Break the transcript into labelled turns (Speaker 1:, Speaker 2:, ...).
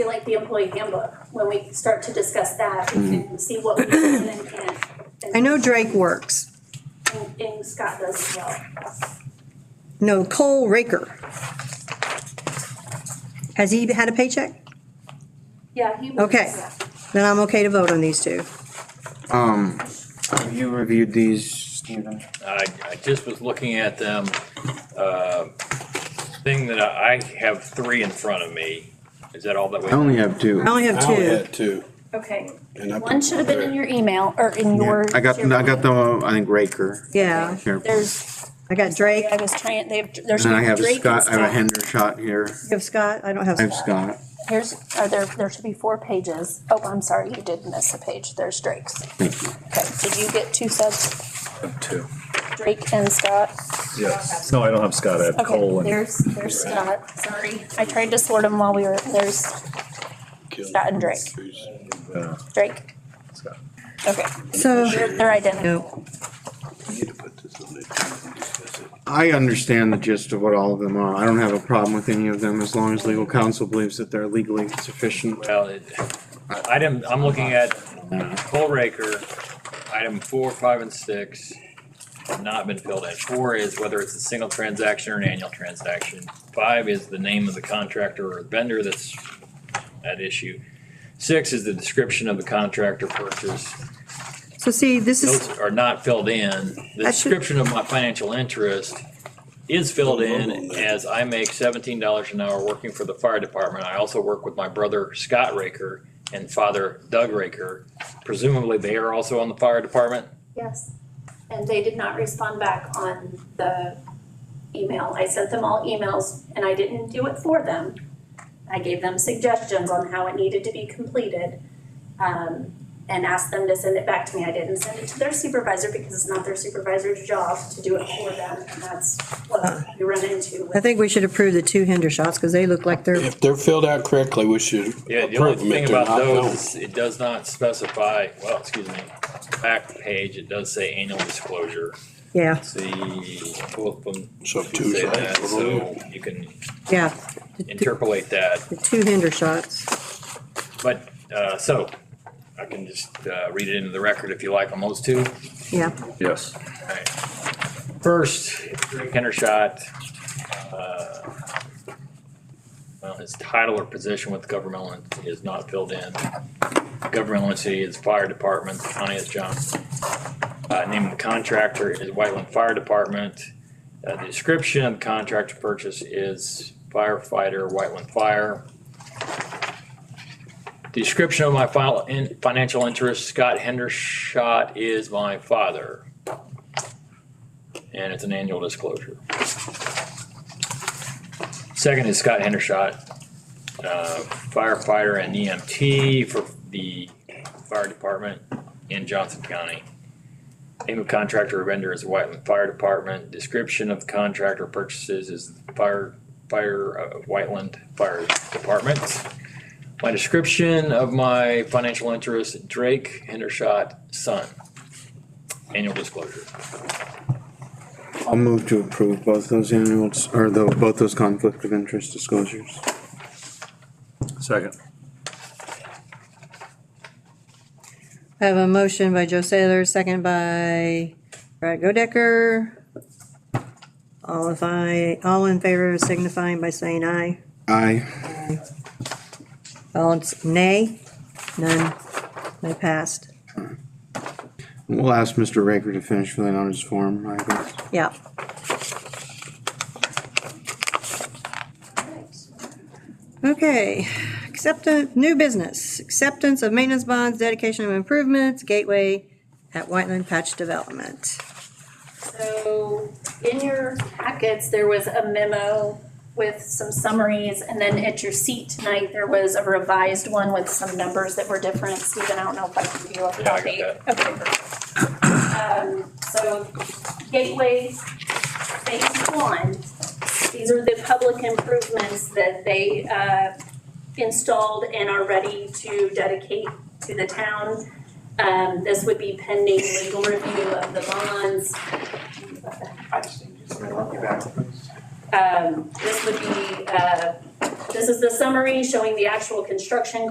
Speaker 1: be like the employee handbook, when we start to discuss that, we can see what we can and can't. and-
Speaker 2: I know Drake works.
Speaker 1: and- And Scott does as well.
Speaker 2: No, Cole Raker. Has he had a paycheck?
Speaker 1: Yeah, he.
Speaker 2: Okay. Then I'm okay to vote on these two.
Speaker 3: Um, have you reviewed these, Stephen?
Speaker 4: I, I just was looking at them, uh, thing that I, I have three in front of me. Is that all that
Speaker 3: I
Speaker 4: we?
Speaker 3: only have two.
Speaker 2: I only have
Speaker 5: I only
Speaker 2: two.
Speaker 5: had two.
Speaker 1: Okay,
Speaker 5: and I put
Speaker 1: one should have been in your email or in your.
Speaker 3: I got, I got the, uh, I think Raker.
Speaker 2: Yeah,
Speaker 3: Here.
Speaker 1: There's,
Speaker 2: I got Drake.
Speaker 1: I was trying, they have, there's.
Speaker 3: And I have
Speaker 1: Drake and
Speaker 3: Scott, I have a Hender shot here.
Speaker 2: You have Scott? I don't have
Speaker 3: I have
Speaker 2: Scott.
Speaker 3: Scott.
Speaker 1: Here's, are there, there should be four pages. Oh, I'm sorry, you did miss a page. There's Drake's.
Speaker 3: Thank you.
Speaker 1: Okay, did you get two subs,
Speaker 6: Two,
Speaker 1: Drake and Scott?
Speaker 6: yes. No, I don't have Scott, I have
Speaker 1: Okay,
Speaker 6: Cole and
Speaker 1: there's, there's Scott, sorry. I tried to sort them while we were, there's
Speaker 5: Kelly.
Speaker 1: Scott and Drake.
Speaker 6: uh,
Speaker 1: Drake,
Speaker 6: Scott.
Speaker 1: okay,
Speaker 2: So,
Speaker 1: they're they're identical.
Speaker 2: no,
Speaker 5: You need to put this on there too, and discuss it.
Speaker 3: I understand the gist of what all of them are. I don't have a problem with any of them as long as legal counsel believes that they're legally sufficient.
Speaker 4: Well, it, item, I'm looking at Cole Raker, item four, five, and six have not been filled in. Four is whether it's a single transaction or an annual transaction. Five is the name of the contractor or vendor that's at issue. Six is the description of the contractor purchase.
Speaker 2: so see, this is,
Speaker 4: Those are not filled in. The
Speaker 2: That should-
Speaker 4: description of my financial interest is filled in as I make seventeen dollars an hour working for the fire department. I also work with my brother Scott Raker and father Doug Raker. Presumably they are also on the fire department.
Speaker 1: Yes, and they did not respond back on the email. I sent them all emails and I didn't do it for them. I gave them suggestions on how it needed to be completed, um, and asked them to send it back to me. I didn't send it to their supervisor because it's not their supervisor's job to do it for them, and that's what we run into
Speaker 2: I
Speaker 1: with.
Speaker 2: think we should approve the two Hinder shots because they look like they're,
Speaker 5: If they're filled out correctly, we should
Speaker 4: Yeah, the only
Speaker 5: approve them
Speaker 4: thing
Speaker 5: if they're
Speaker 4: about
Speaker 5: not
Speaker 4: those,
Speaker 5: known.
Speaker 4: is it does not specify, well, excuse me, back page, it does say annual disclosure.
Speaker 2: yeah,
Speaker 4: See, both of them
Speaker 5: So two
Speaker 4: say
Speaker 5: is
Speaker 4: that,
Speaker 5: right.
Speaker 4: so you can
Speaker 2: yeah.
Speaker 4: interpolate that.
Speaker 2: The two Hinder shots.
Speaker 4: But, uh, so, I can just, uh, read it into the record if you like on those two.
Speaker 2: Yeah,
Speaker 6: Yes.
Speaker 4: First, Drake Hendershot, uh, well, his title or position with governmental entity is not filled in. Governmental entity is fire department, county is Johnson. Uh, name of the contractor is Whiteland Fire Department. Uh, the description of contractor purchase is firefighter, Whiteland Fire. Description of my file, in, financial interest, Scott Hendershot is my father. And it's an annual disclosure. Second is Scott Hendershot, uh, firefighter and EMT for the fire department in Johnson County. Name of contractor or vendor is Whiteland Fire Department. Description of contractor purchases is fire, fire, uh, Whiteland Fire Department. My description of my financial interest, Drake Hendershot, son. Annual disclosure.
Speaker 3: I'll move to approve both those annuals, or the, both those conflict of interest disclosures.
Speaker 6: Second.
Speaker 2: I have a motion by Joe Saylor, second by Brad Godecker. All if I, all in favor signifying by saying aye.
Speaker 3: Aye.
Speaker 2: All in s- nay? None. They passed.
Speaker 3: We'll ask Mr. Raker to finish filling out his form, I guess.
Speaker 2: Yeah. Okay, acceptance, new business, acceptance of maintenance bonds, dedication of improvements, gateway at Whiteland Patch Development.
Speaker 1: So in your packets, there was a memo with some summaries, and then at your seat tonight, there was a revised one with some numbers that were different. Stephen, I don't know if I can give you a
Speaker 4: Yeah, I
Speaker 1: copy.
Speaker 4: got
Speaker 1: Okay. Um, so Gateway Phase One, these are the public improvements that they, uh, installed and are ready to dedicate to the town. Um, this would be pending legal review of the bonds. Um, this would be, uh, This is the summary showing the actual construction